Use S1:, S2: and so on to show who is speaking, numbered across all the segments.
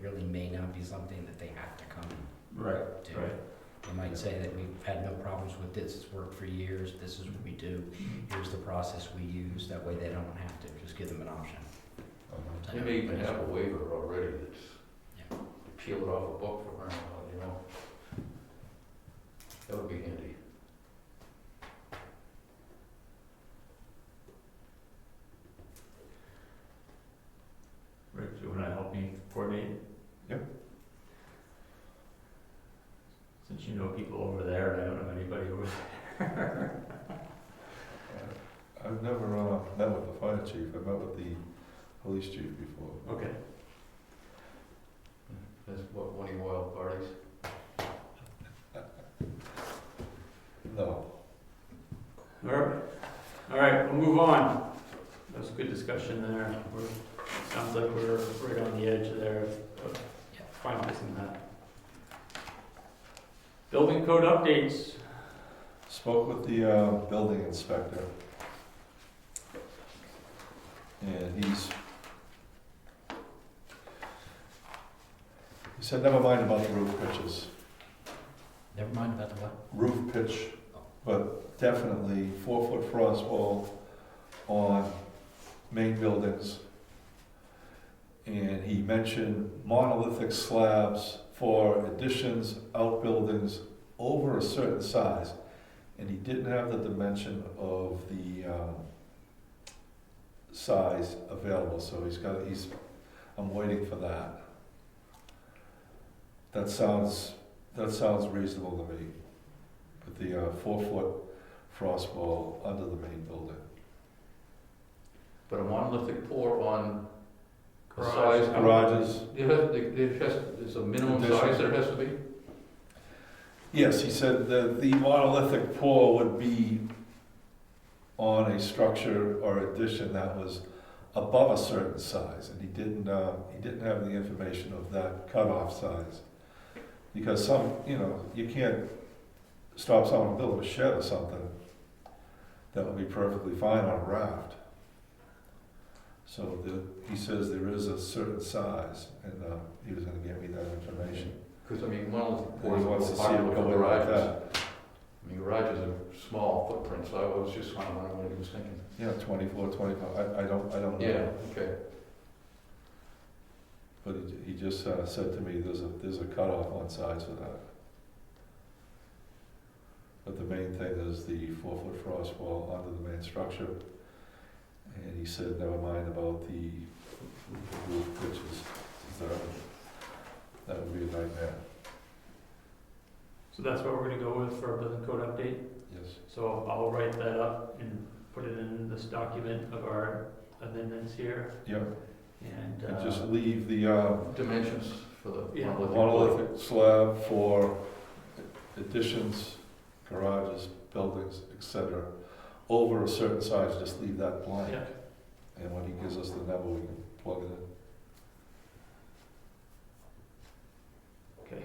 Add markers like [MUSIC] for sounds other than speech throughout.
S1: really may not be something that they have to come
S2: Right,
S1: to.
S2: right.
S1: They might say that we've had no problems with this, it's worked for years, this is what we do, here's the process we use, that way they don't have to, just give them an option.
S2: Uh-huh.
S3: They may even have a waiver already that's,
S1: Yeah.
S3: peel it off a book for marijuana, you know? That would be handy.
S2: Rick, do you wanna help me coordinate?
S4: Yep.
S2: Since you know people over there, and I don't know anybody over there.
S4: I've never, uh, met with the fire chief, I've met with the police chief before.
S2: Okay.
S3: That's what, one of your wild parties?
S4: [LAUGHS] No,
S2: [LAUGHS] All right, all right, we'll move on. That was a good discussion there. We're, it sounds like we're right on the edge there of of finalizing that. Building code updates.
S4: spoke with the, uh, building inspector. And he's, he said, never mind about the roof pitches,
S1: Never mind about the what?
S4: roof pitch, but definitely four-foot frost wall on main buildings. And he mentioned monolithic slabs for additions, outbuildings over a certain size. And he didn't have the dimension of the, um, size available, so he's got, he's, I'm waiting for that. That sounds, that sounds reasonable to me with the uh, four-foot frost wall under the main building.
S3: But a monolithic pour on the
S2: Garage.
S3: size.
S4: Garages,
S3: There has, there- there has, there's a minimum
S4: Addition.
S3: size there has to be?
S4: yes, he said that the monolithic pour would be on a structure or addition that was above a certain size, and he didn't, uh, he didn't have the information of that cutoff size. Because some, you know, you can't stop someone building a shed or something that would be perfectly fine on a raft. So the, he says there is a certain size, and, uh, he was gonna get me that information.
S3: Because I mean, monolithic
S4: He
S3: pours are
S4: wants
S3: more
S4: to see it
S3: popular for
S4: going like
S3: garages.
S4: that.
S3: I mean, garages are small footprints, so I was just wondering what he was thinking.
S4: Yeah, twenty-four, twenty-five, I, I don't, I don't know.
S3: Yeah, okay.
S4: But he, he just uh, said to me, there's a, there's a cutoff on size for that. But the main thing is the four-foot frost wall under the main structure. And he said, never mind about the roof pitches, that, that would be a nightmare,
S2: So that's what we're gonna go with for our building code update.
S4: yes.
S2: So I'll write that up and put it in this document of our amendments here
S4: Yeah,
S2: and,
S4: and
S2: uh,
S4: just leave the, uh,
S3: Dimensions for the
S2: Yeah.
S3: monolithic pour.
S4: monolithic slab for additions, garages, buildings, etc., over a certain size, just leave that blank.
S2: Yeah.
S4: And when he gives us the number, we can plug it in.
S2: okay,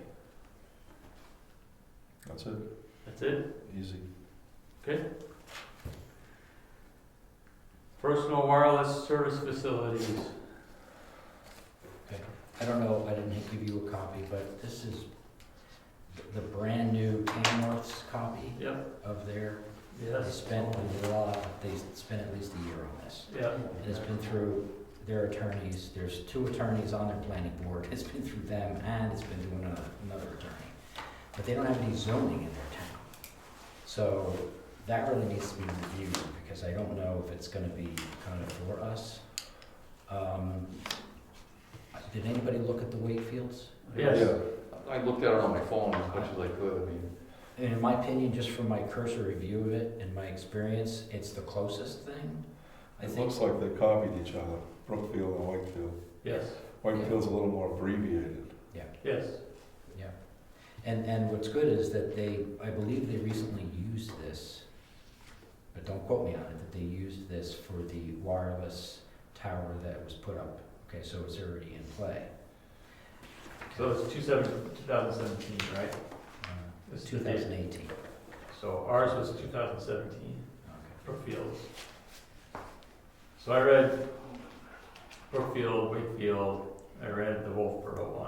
S4: That's it,
S2: that's it.
S4: easy.
S2: Personal wireless service facilities.
S1: I don't know, I didn't give you a copy, but this is the- the brand-new Tamworth's copy
S2: Yep,
S1: of their, they
S2: yes.
S1: spent a lot, they spent at least a year on this.
S2: Yeah,
S1: And It's been through their attorneys, there's two attorneys on their planning board, it's been through them, and it's been through another, another attorney. But they don't have any zoning in their town. So that really needs to be reviewed, because I don't know if it's gonna be kind of for us. Um, Did anybody look at the Wakefields?
S2: Yes.
S4: Yeah,
S3: I looked at it on my phone as much as I could, I mean,
S1: And in my opinion, just from my cursory view of it and my experience, it's the closest thing. I
S4: It
S1: think,
S4: looks like they copied each other, Brookfield and Wakefield.
S2: yes,
S4: Wakefield's a little more abbreviated.
S2: yes.
S1: yeah. And, and what's good is that they, I believe they recently used this, but don't quote me on it, that they used this for the wireless tower that was put up. Okay, so it's already in play.
S2: So it's two seven, two thousand seventeen, right? It's the
S1: Uh, Two
S2: date.
S1: thousand eighteen.
S2: So ours was two thousand seventeen. Brookfield. So I read Brookfield, Wakefield, I read the Wolfboro one.